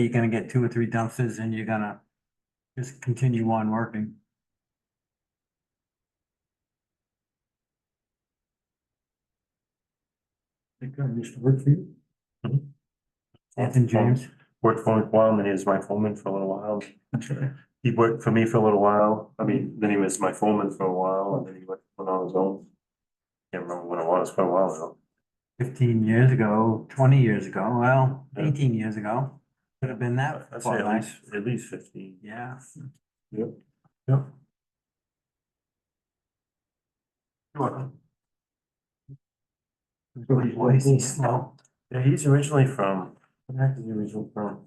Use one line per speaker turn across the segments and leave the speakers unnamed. You're gonna get two or three dumpsters and you're gonna just continue on working.
Think I used to work for you.
Anthony James,
Mm-hmm. Worked for Quam and he was my foreman for a little while. He worked for me for a little while. I mean, then he was my foreman for a while and then he went went on his own. Can't remember when it was, quite a while ago.
fifteen years ago, twenty years ago, well,
Yeah.
eighteen years ago, could have been that.
I'd say
far
at
back.
least, at least fifteen.
Yeah,
Yep. Yep. You're welcome.
Good voice, he's slow.
Yeah, he's originally from, what the heck is he originally from?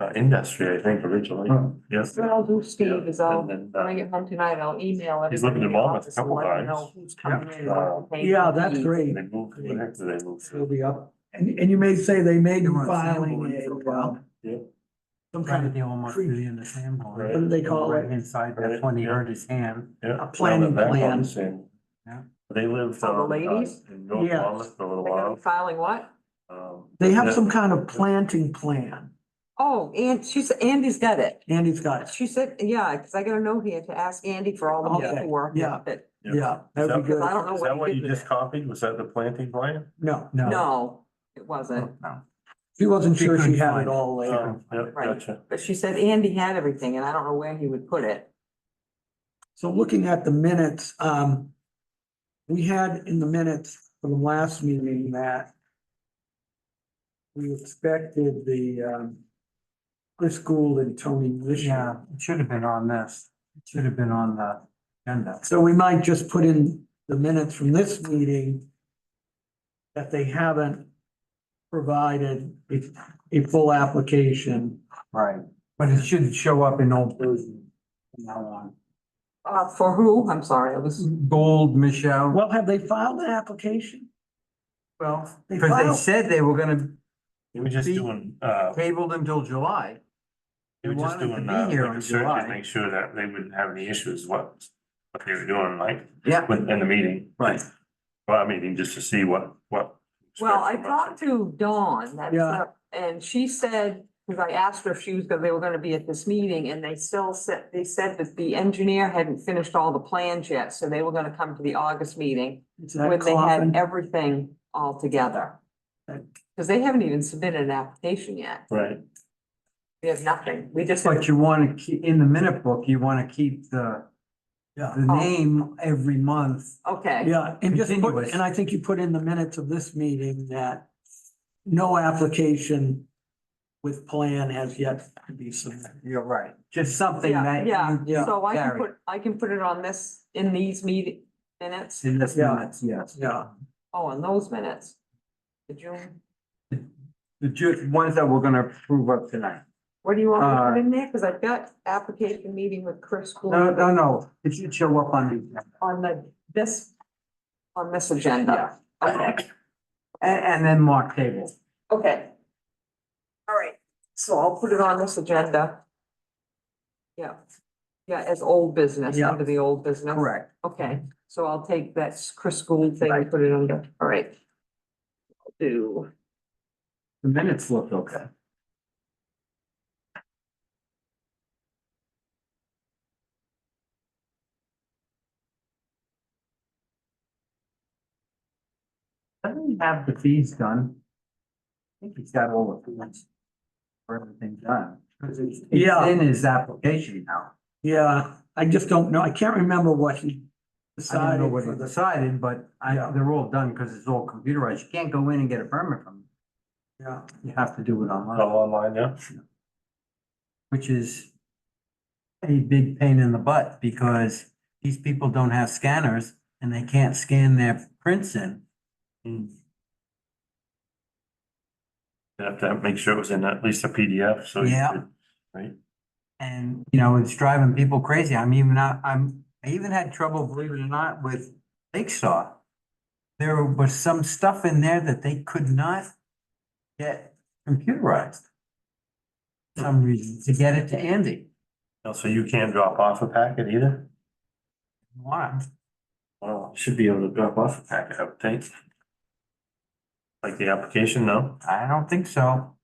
Uh, industry, I think, originally, yes.
What I'll do, Steve, is I'll,
And then, uh,
when I get home tonight, I'll email it.
He's living in Monmouth a couple times.
Who's coming in.
Yeah.
Yeah, that's great.
They moved, what the heck did they move to?
It'll be up. And, and you may say they may be
They were
filing
assembling for a
a, uh,
while.
Yep.
some kind
Right at
of,
the almost
creep.
really in the sandbar.
Right.
what do they call
Right
it?
inside,
Right,
that's when he
yeah.
hurt his hand.
Yeah.
A planning
That- that
plan.
one's in-
Yeah.
They lived
Oh, the
on, uh,
ladies?
in North
Yes.
Monmouth for a little
They're gonna
while.
be filing what?
Um,
They
yeah,
have some kind of planting plan.
Oh, and she said, Andy's got it.
Andy's got, it.
She said, yeah, cause I got a note here to ask Andy for all the
Okay,
paperwork.
yeah.
But
yeah, that'd be
Because
good.
I don't know
Is that
Oh, what
what
he
you
did with
just
it.
copied? Was that the planting plan?
No,
No.
No, it
Oh.
wasn't.
No.
she wasn't
She
sure she
couldn't
had
find
it
it.
all later.
Um, Yep,
Right.
gotcha.
But she said Andy had everything and I don't know where he would put it.
So looking at the minutes, um, we had in the minutes from the last meeting that we expected the, um, Chris Gould and Tony
Yeah,
Wisher.
it should have been on this, it should have been on the agenda.
So we might just put in the minutes from this meeting that they haven't provided a, a full application.
Right, but it should show up in old version from now on.
Uh, for who? I'm sorry, it was,
Gold, Michelle,
Well, have they filed an application?
well,
They
because they
filed-
said they were gonna
They were just
Be-
doing, uh,
table them till July.
they were just
wanted to
doing,
be
uh,
here
like
in
a search
July.
to make sure that they wouldn't have any issues, what, what they were doing, like,
Yeah.
with, in the meeting.
Right.
Well, I mean, just to see what, what.
well, I talked to Dawn, that's,
Yeah.
up, and she said, cause I asked her if she was, gonna they were gonna be at this meeting and they still said, they said that the engineer hadn't finished all the plans yet, so they were gonna come to the August meeting.
Is
when
that
they had
Coffin?
everything all together.
Okay.
Cause they haven't even submitted an application yet.
Right,
We have nothing. We just.
But you wanna keep, in the minute book, you wanna keep the,
Yeah.
the name every month.
Okay,
Yeah, and just put,
Continuous.
and I think you put in the minutes of this meeting that no application with plan has yet to be submitted.
You're right. Just something
Yeah,
that.
yeah.
you
Yeah.
so I can
carry.
put, I can put it on this, in these meeting minutes,
In this
Yeah.
minutes, yes.
Yeah,
oh, in those minutes. The June,
The ju- ones that we're gonna approve of tonight.
what do you want me to
Uh,
put in there? Cause I've got application meeting with Chris
No,
Gould
no, no, it should show up on the agenda.
on the, this, on this agenda. Okay,
And, and then mark table.
okay. All right, so I'll put it on this agenda. Yeah, yeah, as old business,
Yeah.
under the old business.
Correct.
Okay, so I'll take that Chris Gould thing and put it under, all right. I'll Do,
The minutes look okay. Doesn't he have the fees done? I think he's got all the fees. For everything done. 'Cause it's,
Yeah.
it's in his application now.
yeah, I just don't know. I can't remember what
I
he
don't know
decided
what
for
he
the,
decided, but I,
Yeah.
they're all done because it's all computerized. You can't go in and get a permit from,
yeah.
them. you have to do it
all
online.
online, yeah.
which is a big pain in the butt because these people don't have scanners and they can't scan their prints in.
You'd have to make sure it was in at least a PDF, so. you
Yeah.
could- Right,
And, you know, it's driving people crazy. I'm even not, I'm, I even had trouble, believe it or not, with Lake Star. There was some stuff in there that they could not get computerized. for Some reason, to get it to Andy.
also you can't drop off a packet either?
Why?
Well, should be able to drop off a packet, I would think. Like the application, no?
I don't think so.